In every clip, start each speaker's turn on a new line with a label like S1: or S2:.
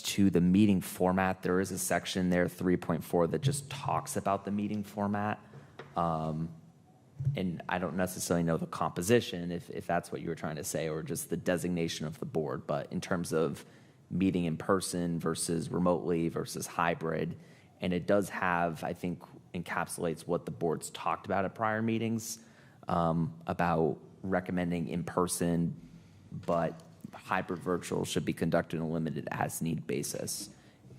S1: to the meeting format, there is a section there, 3.4, that just talks about the meeting format. Um, And I don't necessarily know the composition, if, if that's what you were trying to say, or just the designation of the board, but in terms of meeting in person versus remotely versus hybrid, and it does have, I think, encapsulates what the board's talked about at prior meetings um, about recommending in person, but hybrid virtual should be conducted on a limited as need basis.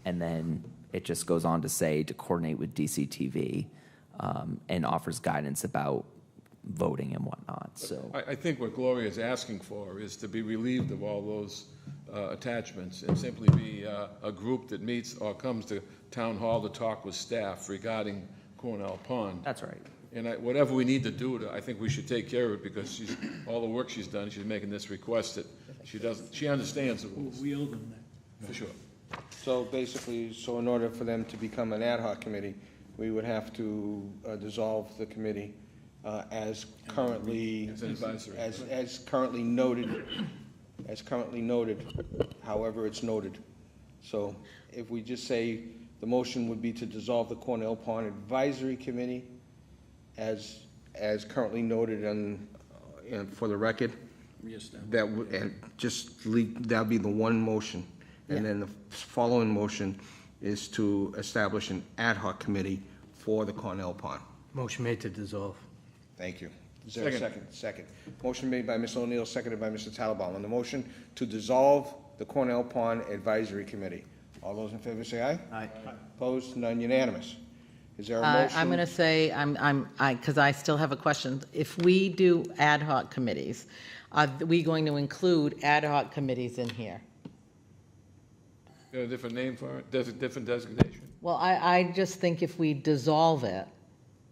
S1: And then it just goes on to say to coordinate with DCTV um, and offers guidance about voting and whatnot. So,
S2: I, I think what Gloria is asking for is to be relieved of all those uh, attachments and simply be uh, a group that meets or comes to town hall to talk with staff regarding Cornell Pond.
S1: that's right.
S2: And I, whatever we need to do, to- I think we should take care of it because she's, all the work she's done, she's making this request that she doesn't, she understands the rules,
S3: We owe them that.
S2: for sure.
S4: So basically, so in order for them to become an ad hoc committee, we would have to uh, dissolve the committee uh, as currently.
S2: As an advisory.
S4: As, as currently noted, as currently noted, however it's noted. So if we just say, the motion would be to dissolve the Cornell Pond Advisory Committee as, as currently noted and, and for the record. That would, and just leave, that'd be the one motion. And then the following motion is to establish an ad hoc committee for the Cornell Pond.
S3: Motion made to dissolve.
S4: Thank you. Is there a
S2: Second.
S4: second? Second. Motion made by Ms. O'Neill, seconded by Mr. Tattelbaum. On the motion to dissolve the Cornell Pond Advisory Committee. All those in favor say aye. Aye. Opposed? None unanimous. Is there a
S5: Uh,
S4: motion?
S5: I'm going to say, I'm, I'm, I, because I still have a question. If we do ad hoc committees, are we going to include ad hoc committees in here?
S2: Got a different name for it, Des- different designation?
S5: Well, I, I just think if we dissolve it,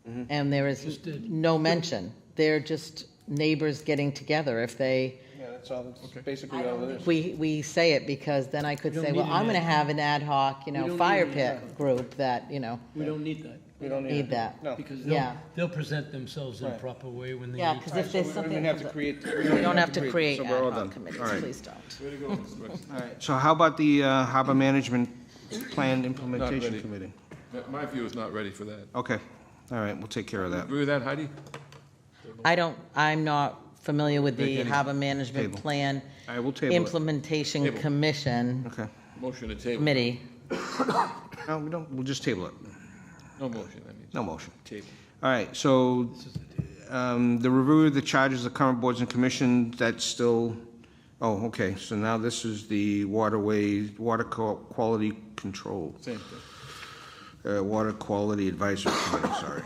S4: Mm-hmm.
S5: and there is no mention, they're just neighbors getting together. If they,
S4: Yeah, that's all, that's basically all Oh, it is.
S5: we, we say it, because then I could
S3: We don't
S5: say, well,
S3: need an
S5: I'm going to
S3: ad hoc.
S5: have an ad hoc, you
S3: We don't
S5: know,
S3: need
S5: fire
S3: an ad
S5: pit group that, you know,
S3: We don't need that,
S4: We don't
S5: need
S4: to-
S5: that.
S4: No.
S3: because they'll,
S5: Yeah.
S3: they'll present themselves in a
S4: Right.
S3: proper way when they
S5: yeah,
S3: need
S5: because
S3: to.
S5: if there's
S4: So we
S5: something.
S4: don't have to
S5: comes up-
S4: create. we
S5: We don't have to create
S4: so
S5: ad
S4: we're all done.
S5: hoc
S4: All
S5: committees,
S4: right.
S5: please don't.
S2: Way to go, Mr. Wexler.
S4: All right, so how about the uh, Harbor Management Plan Implementation
S2: ready.
S4: Committee?
S2: My- My view is not ready for that.
S4: Okay, all right, we'll take care of that.
S2: Agree with that, Heidi?
S5: I don't, I'm not familiar with the
S4: Make any-
S5: harbor management
S4: table.
S5: plan.
S4: I will table it.
S5: Implementation
S2: Table.
S5: Commission
S4: Okay,
S2: Motion to table.
S5: Committee.
S4: no, we don't, we'll just table it,
S2: No motion, I mean,
S4: no motion.
S2: table.
S4: All right, so um, the review of the charges of current boards and commissions, that's still, oh, okay, so now this is the waterway, water Qual- quality control,
S2: Same thing.
S4: uh, water quality advisory committee, sorry.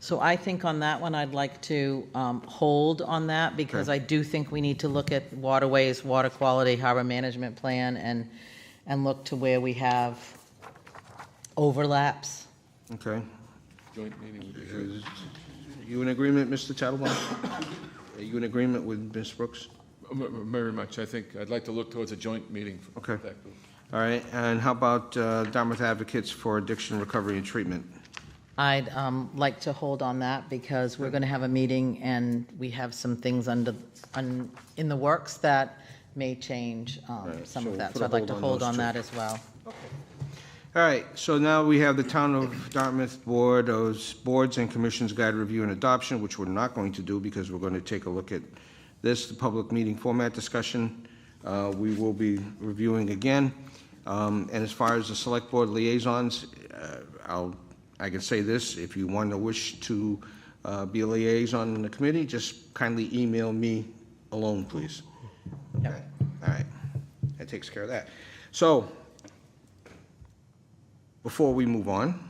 S5: So I think on that one, I'd like to um, hold on that because
S4: Okay.
S5: I do think we need to look at waterways, water quality, harbor management plan, and, and look to where we have overlaps.
S4: Okay,
S2: Joint meeting would be good.
S4: Is- you in agreement, Mr. Tattelbaum? Are you in agreement with Ms. Brooks?
S2: M- m- Very much, I think, I'd like to look towards a joint meeting for
S4: Okay.
S2: that group.
S4: All right, and how about uh, Dartmouth Advocates for Addiction Recovery and Treatment?
S5: I'd um, like to hold on that because we're going to have a meeting and we have some things under, un- in the works that may change um,
S4: Right,
S5: some
S4: so we'll
S5: of that.
S4: put
S5: So
S4: a
S5: I'd like to
S4: hold on
S5: hold
S4: those
S5: on
S4: two.
S5: that as well.
S4: All right, so now we have the Town of Dartmouth Board, those boards and commissions guide review and adoption, which we're not going to do because we're going to take a look at this, the public meeting format discussion, uh, we will be reviewing again. Um, And as far as the select board liaisons, uh, I'll, I can say this, if you want to wish to uh, be a liaison in the committee, just kindly email me alone, please. Okay, all right, that takes care of that. So, before we move on,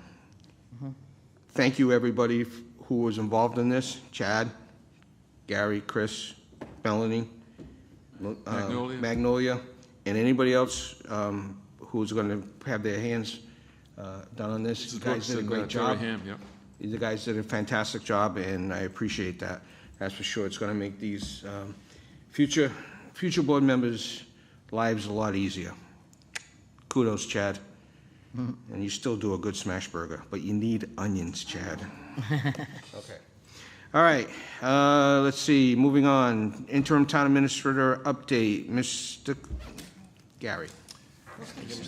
S4: thank you, everybody f- who was involved in this, Chad, Gary, Chris, Melanie, Mo- uh,
S2: Magnolia.
S4: Magnolia, and anybody else um, who's going to have their hands uh, done on this. You guys did a
S2: uh,
S4: great job. You guys did a fantastic job, and I appreciate that. That's for sure. It's going to make these um, future, future board members' lives a lot easier. Kudos, Chad. And you still do a good smash burger, but you need onions, Chad. Okay. All right, uh, let's see, moving on. Interim Town Administrator update, Mr. Gary.